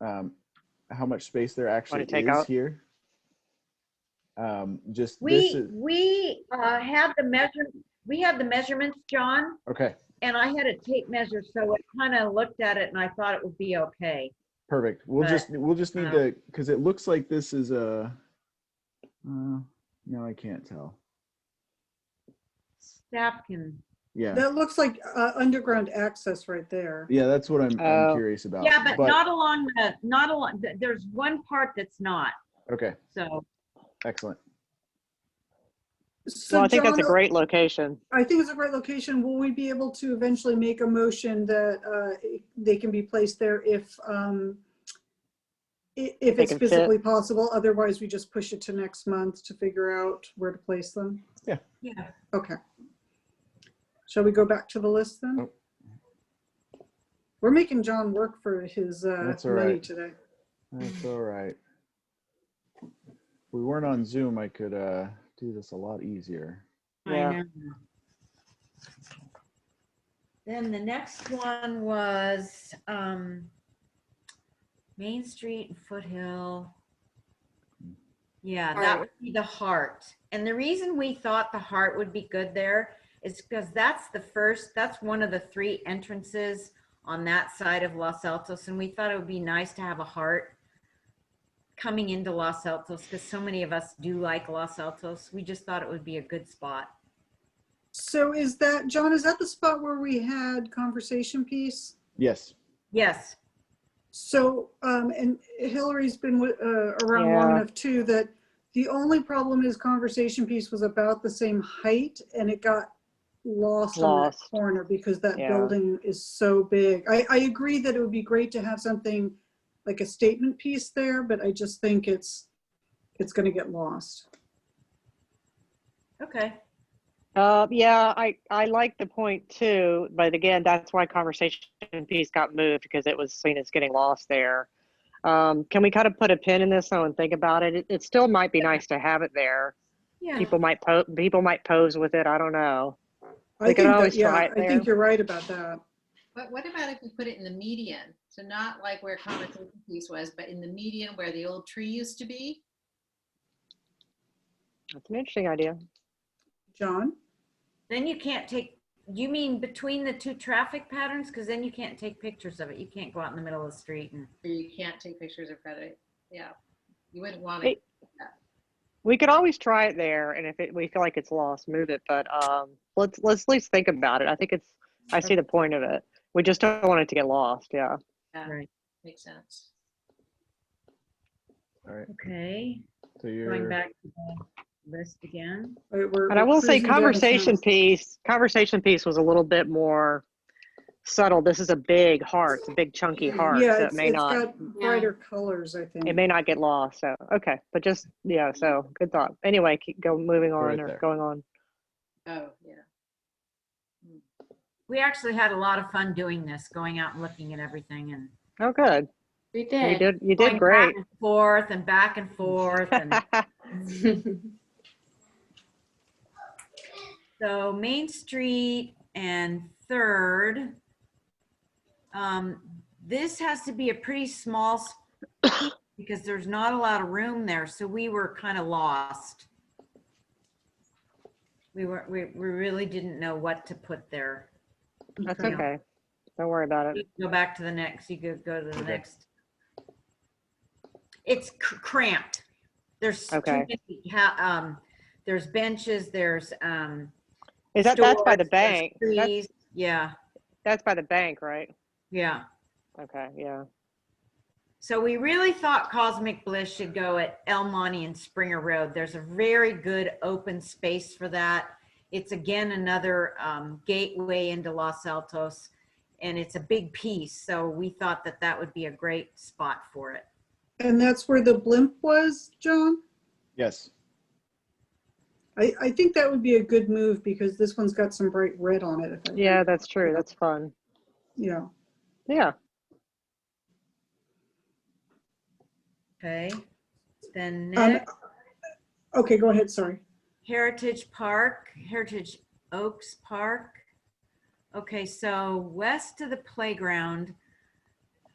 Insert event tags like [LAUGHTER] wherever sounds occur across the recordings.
um, how much space there actually take is out? here. Um, just this We, is, we uh, have the measure, we have the measurements, John, okay, and I had a tape measure, so it kind of looked at it and I thought it would be okay. perfect. We'll But, just, we'll just need um, to, because it looks like this is a, uh, no, I can't tell. Staff can, Yeah, That looks like uh, underground access right there. yeah, that's what I'm, I'm Oh. curious about. yeah, but not along the, not along, th- there's one part that's not, Okay, so. excellent. So Well, I think that's a John, great location. I think it's a great location. Will we be able to eventually make a motion that uh, they can be placed there if, um, i- if They it's can fit. physically possible? Otherwise, we just push it to next month to figure out where to place them? Yeah. Yeah. Okay. Shall we go back to the list then? Oh. We're making John work for his uh, That's all money right. today. That's all right. If we weren't on Zoom, I could, uh, do this a lot easier. I Yeah. know. Then the next one was um Main Street and Foothill. Yeah, that Heart. would be the heart. And the reason we thought the heart would be good there is because that's the first, that's one of the three entrances on that side of Los Altos, and we thought it would be nice to have a heart coming into Los Altos, because so many of us do like Los Altos. We just thought it would be a good spot. So is that, John, is that the spot where we had conversation piece? Yes, Yes, So, um, and Hillary's been wi- uh, around long Yeah. enough too, that the only problem is conversation piece was about the same height and it got lost on that Lost. corner because that Yeah. building is so big. I, I agree that it would be great to have something like a statement piece there, but I just think it's, it's gonna get lost. okay. Uh, yeah, I, I like the point too, but again, that's why conversation piece got moved because it was seen as getting lost there. Um, can we kind of put a pin in this though and think about it? It, it still might be nice to have it there. Yeah. People might po- people might pose with it. I don't know. We I could think that, always yeah, try it I there. think you're right about that. But what about if we put it in the median? So not like where conversation piece was, but in the median where the old tree used to be? That's an interesting idea. John? Then you can't take, you mean between the two traffic patterns? Because then you can't take pictures of it. You can't go out in the middle of the street and, Where you can't take pictures in front of it. Yeah. You wouldn't want Hey. it. We could always try it there, and if it, we feel like it's lost, move it. But um, let's let's at least think about it. I think it's I see the point of it. We just don't want it to get lost. Yeah. Yeah, right, Makes sense. all right, okay, so going you're, back to the list again. All right, we're- And I we're will say, cruising down this conversation mountain. piece, conversation piece was a little bit more subtle. This is a big heart, it's a big chunky heart. Yeah, so it's it may it's not, got brighter colors, I think. it may not get lost. So okay, but just yeah. So good thought. Anyway, keep go moving on Right or there. going on. Oh, yeah. We actually had a lot of fun doing this, going out and looking at everything and. Oh, good. We You did. You going did great. back and Forth and back and forth and. [LAUGHS] So Main Street and Third. Um, this has to be a pretty small s- because there's not a lot of room there, so we were kind of lost. We were, we, we really didn't know what to put there. That's Okay. okay. Don't worry about You it. can Go back to the next, you could go to the Okay. next. It's cr- cramped. There's too Okay. many ha- um, there's benches, there's, um. Is that that's by the stores, there's bank? That's, trees. Yeah, that's by the bank, right? yeah. Okay. Yeah. So we really thought Cosmic Bliss should go at El Monte and Springer Road. There's a very good open space for that. It's again another um, gateway into Los Altos, and it's a big piece. So we thought that that would be a great spot for it. And that's where the blimp was, John? yes, I, I think that would be a good move because this one's got some bright red on it. if I- Yeah, that's true. That's fun. Yeah. Yeah. Okay. Then Um, next, Okay, go ahead, sorry. Heritage Park, Heritage Oaks Park. Okay, so west of the playground,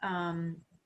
um,